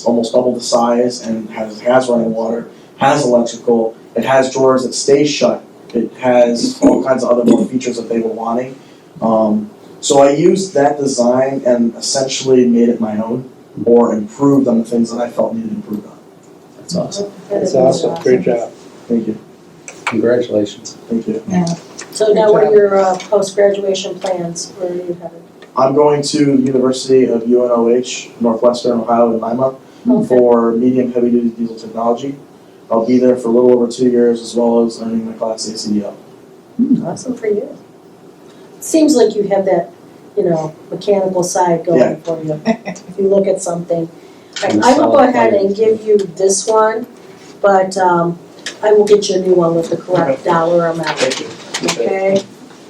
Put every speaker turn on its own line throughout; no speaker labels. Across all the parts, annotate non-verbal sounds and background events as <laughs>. It's almost double the size and has, has running water, has electrical, it has drawers that stay shut, it has all kinds of other more features that they were wanting. Um, so I used that design and essentially made it my own, or improved on the things that I felt needed improved on.
That's awesome.
That's awesome, great job.
Thank you,
Congratulations.
thank you.
So now what are your uh, post-graduation plans, where are you headed?
I'm going to the University of UNOH, Northwestern Ohio in Lima,
Okay.
for medium heavy duty diesel technology. I'll be there for a little over two years as well as earning my class ACDL.
Awesome for you. Seems like you have that, you know, mechanical side
Yeah.
going for you, if you look at something. Alright,
And
I will go
solid
ahead and
plans.
give you this one, but um, I will get you a new one with the correct dollar amount,
Thank you.
okay?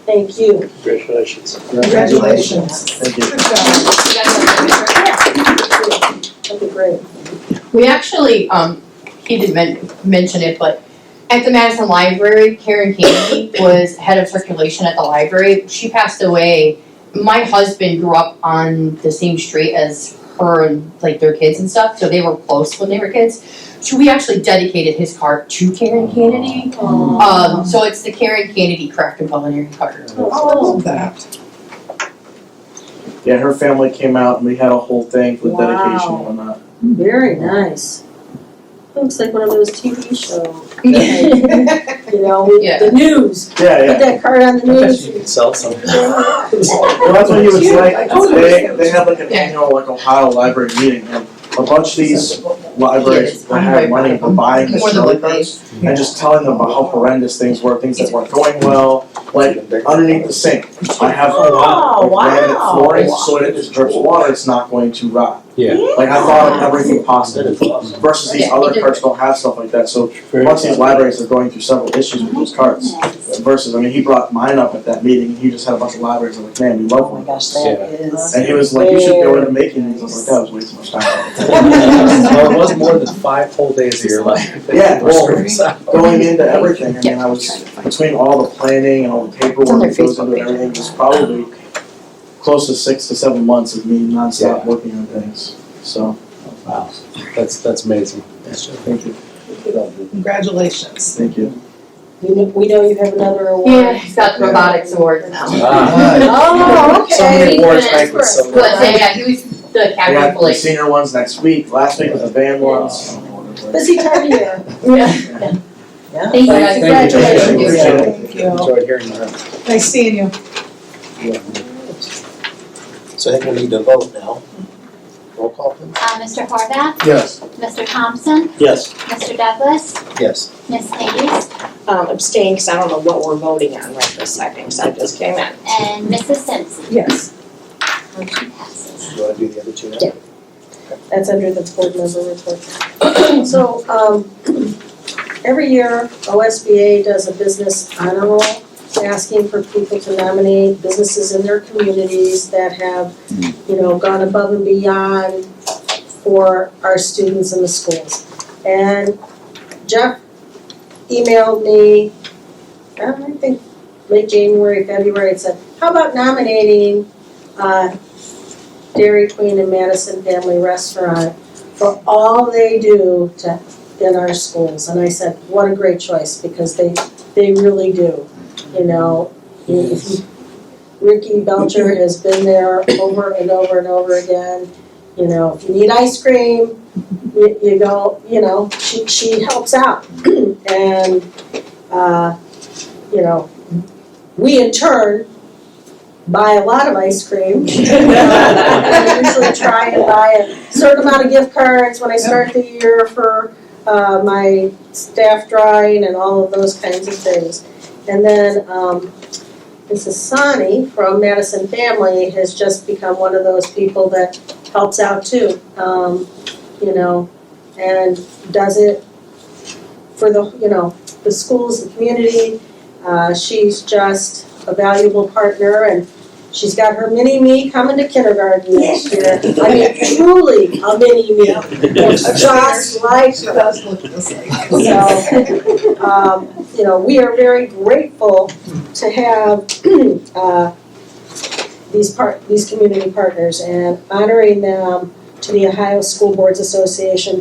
Thank you.
Congratulations.
Congratulations.
Thank you.
That'd be great.
We actually, um, he didn't men- mention it, but at the Madison Library, Karen Candy was head of circulation at the library. She passed away. My husband grew up on the same street as her and like their kids and stuff, so they were close when they were kids. So we actually dedicated his car to Karen Kennedy. Um, so it's the Karen Kennedy Craft and Culinary Card.
Oh,
that.
Yeah, her family came out and we had a whole thing with
Wow.
dedication and whatnot.
Very nice. Looks like one of those TV shows, <laughs> you know, with
Yeah.
the news,
Yeah,
put
<laughs>
yeah.
that card on the
I bet
news.
you could sell some.
Well, that's what he was like. They, they had like an
Yeah.
annual like Ohio library meeting and a bunch of these libraries
Yes,
that
I'm
had
very
money
proud
were buying this
More than
really
what they.
and just telling them about how horrendous things were, things that weren't going well, like underneath the sink. I have a lot of
Oh,
granite
wow.
flooring, so when it just drips water, it's not going to rot.
Yeah.
Like I thought of everything
That
possible
is awesome.
versus these
Yeah,
other
you did.
carts don't have stuff like that, so once
<laughs>
these libraries are going through several issues with those carts. Versus, I mean, he brought mine up at that meeting, and he just had a bunch of libraries, I'm like, man, we love one.
Oh gosh,
that
is.
And he was like, you should go into making these, I was like, that was way too much time.
Well, it was more than five whole days of your life.
<laughs> Yeah, well,
well.
Going into everything, I mean, I was between all the planning and all the paperwork that goes into everything, it was probably close to six to seven months of me nonstop
Yeah.
working on things. So,
Wow, that's, that's amazing.
thank you,
Congratulations.
thank you.
We know, we know you have another award.
Yeah, he's got the robotics award now.
Ah.
Oh,
So many
okay.
awards back with some.
But yeah, yeah, he was the
We
cabinet
got the
police.
senior ones next week, last week was the band ones.
Busy time of year.
Yeah.
Yeah.
Thank you guys.
Thank you.
Congratulations.
Appreciate it.
Thank you.
Enjoyed hearing that.
Nice seeing you.
So I think we need to vote now. Roll call please.
Uh, Mr. Horvath,
Yes.
Mr. Thompson,
Yes.
Mr. Douglas,
Yes.
Ms. Hayes,
um, abstain because I don't know what we're voting on right this second because I just came in.
and Mrs. Simpson.
Yes.
Motion passes.
You wanna do the other two now?
Yeah.
That's under the board member report. So, um, every year, OSBA does a business honor roll, asking for people to nominate businesses in their communities that have, you know, gone above and beyond for our students in the schools. And Jeff emailed me, I don't think, late January, February, and said, how about nominating, uh, Dairy Queen and Madison Family Restaurant for all they do to, in our schools. And I said, what a great choice, because they, they really do, you know. you- if you- <laughs> Ricky Belcher has been there over and over and over again, you know, if you need ice cream, you, you go, you know, she, she helps out. <clears throat> And, uh, you know, we in turn buy a lot of ice cream. <laughs> I usually try and buy a certain amount of gift cards when I start the year for uh, my staff drawing and all of those kinds of things. And then um, Mrs. Sani from Madison Family has just become one of those people that helps out too, um, you know, and does it for the, you know, the schools, the community. Uh, She's just a valuable partner and She's got her mini me coming to kindergarten next year. I mean, truly a mini me, <laughs> just like
She
her.
does look just
<laughs>
like us.
So, um, you know, we are very grateful to <clears throat> have, uh, these part, these community partners and honoring them to the Ohio School Boards Association